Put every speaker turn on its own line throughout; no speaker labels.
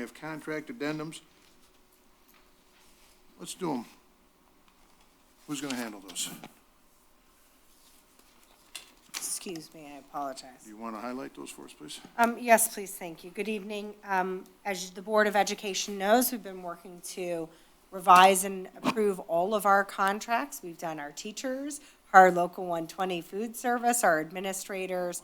have contract addendums. Let's do them. Who's going to handle those?
Excuse me, I apologize.
Do you want to highlight those for us, please?
Um, Yes, please, thank you. Good evening. Um, As the Board of Education knows, we've been working to revise and approve all of our contracts. We've done our teachers, our local 120 food service, our administrators,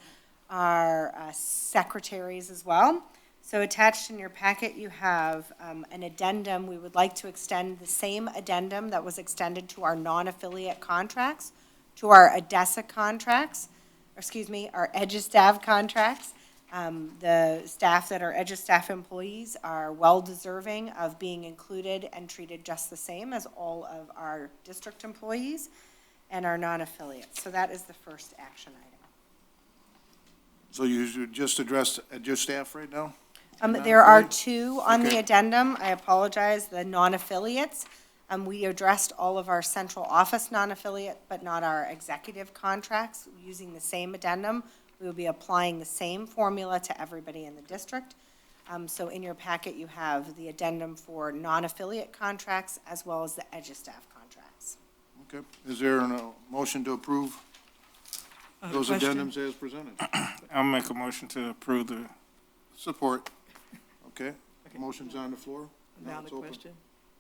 our uh, secretaries as well. So attached in your packet, you have um, an addendum. We would like to extend the same addendum that was extended to our non-affiliate contracts, to our ADESA contracts, or excuse me, our EduStaff contracts. Um, The staff that are EduStaff employees are well-deserving of being included and treated just the same as all of our district employees and our non-affiliates. So that is the first action item.
So you should just address, uh, just staff right now?
Um,
Madam
there are
Clerk?
two on the
Okay.
addendum, I apologize, the non-affiliates. Um, we addressed all of our central office non-affiliate, but not our executive contracts, using the same addendum. We will be applying the same formula to everybody in the district. Um, so in your packet, you have the addendum for non-affiliate contracts as well as the EduStaff contracts.
Okay. Is there a motion to approve
Uh,
those
question.
addendums as presented?
I'll make a motion to approve the,
Support. Okay. Motion's on the floor. Now
Valid
it's open.
question.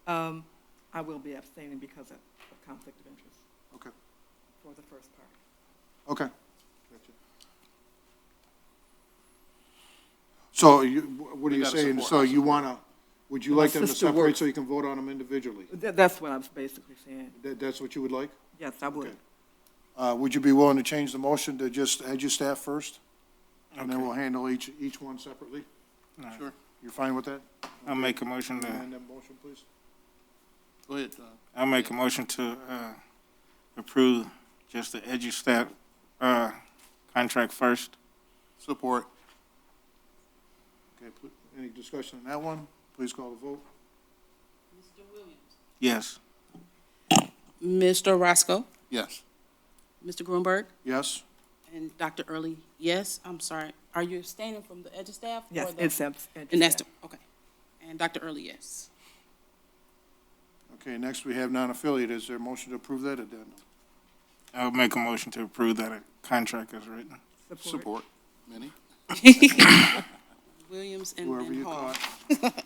Um, I will be abstaining because of of conflict of interest
Okay,
for the first part.
okay. Gotcha. So you, what are
We
you
gotta
saying?
support.
So you want to, would you
My
like them to
sister
separate
works-
so you can vote on them individually?
That, that's what I was basically saying.
That, that's what you would like?
Yes, I would.
Okay. Uh, would you be willing to change the motion to just EduStaff first? And then
Okay.
we'll handle each, each one separately?
All right.
Sure.
You're fine with that?
I'll make a motion to,
Amend that motion, please.
Go ahead, uh,
I'll make a motion to, uh, approve just the EduStat, uh, contract first.
support.
Okay, pl- any discussion on that one? Please call the vote.
Yes.
Mr. Roscoe,
Yes.
Mr. Grunberg,
Yes?
and Dr. Early, yes, I'm sorry. Are you abstaining from the edge of staff? or
Yes,
the-
it's abs.
And that's, the- okay. And Dr. Early, yes.
Okay, next we have non-affiliate. Is there a motion to approve that addendum?
I'll make a motion to approve that uh, contract is written.
Support.
Support. Minnie?
Williams and
Whoever
and
you
Hall.
caught.
I got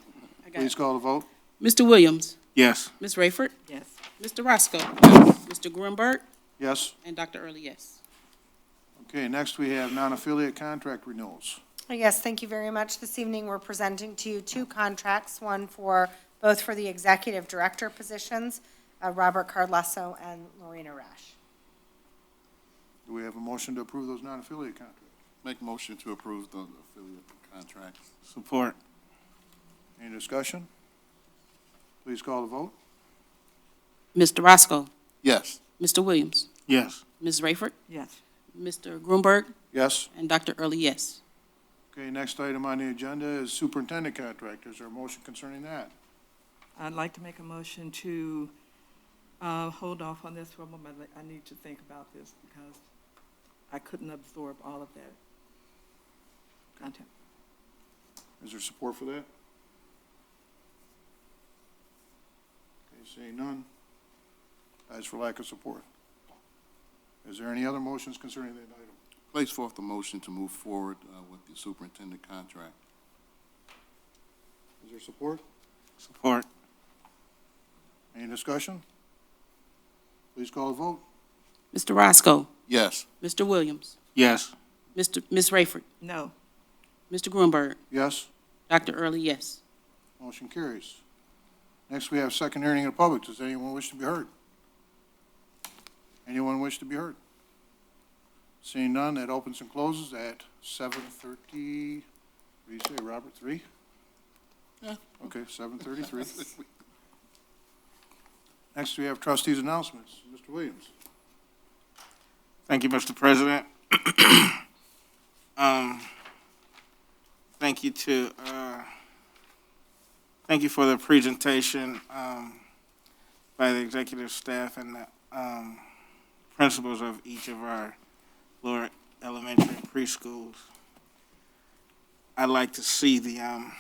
Please
it.
call the vote.
Mr. Williams,
Yes.
Ms. Rayford,
Yes,
Mr. Roscoe, Mr. Grunberg,
Yes?
and Dr. Early, yes.
Okay, next we have non-affiliate contract renewals.
Yes, thank you very much. This evening, we're presenting to you two contracts, one for, both for the executive director positions, uh, Robert Carlasso and Lorena Rash.
Do we have a motion to approve those non-affiliate contracts?
Make motion to approve the affiliate contracts.
Support.
Any discussion? Please call the vote.
Mr. Roscoe,
Yes.
Mr. Williams,
Yes.
Ms. Rayford,
yes,
Mr. Grunberg,
Yes?
and Dr. Early, yes.
Okay, next item on the agenda is superintendent contract. Is there a motion concerning that?
I'd like to make a motion to, uh, hold off on this for a moment. I I need to think about this because I couldn't absorb all of that content.
Is there support for that? Okay, seeing none. As for lack of support. Is there any other motions concerning that item?
Place forth the motion to move forward uh, with the superintendent contract.
Is there support?
Support.
Any discussion? Please call the vote.
Mr. Roscoe,
Yes.
Mr. Williams,
Yes.
Mr. Ms. Rayford,
No,
Mr. Grunberg,
Yes,
Dr. Early, yes.
motion carries. Next, we have second hearing of the public. Does anyone wish to be heard? Anyone wish to be heard? Seeing none, that opens and closes at seven thirty, what do you say, Robert, three?
Yeah.
Okay, seven thirty-three. Next, we have trustees' announcements. Mr. Williams.
Thank you, Mr. President. Um, Thank you to, uh, thank you for the presentation um, by the executive staff and the um, principals of each of our lower elementary and preschools. I'd like to see the um,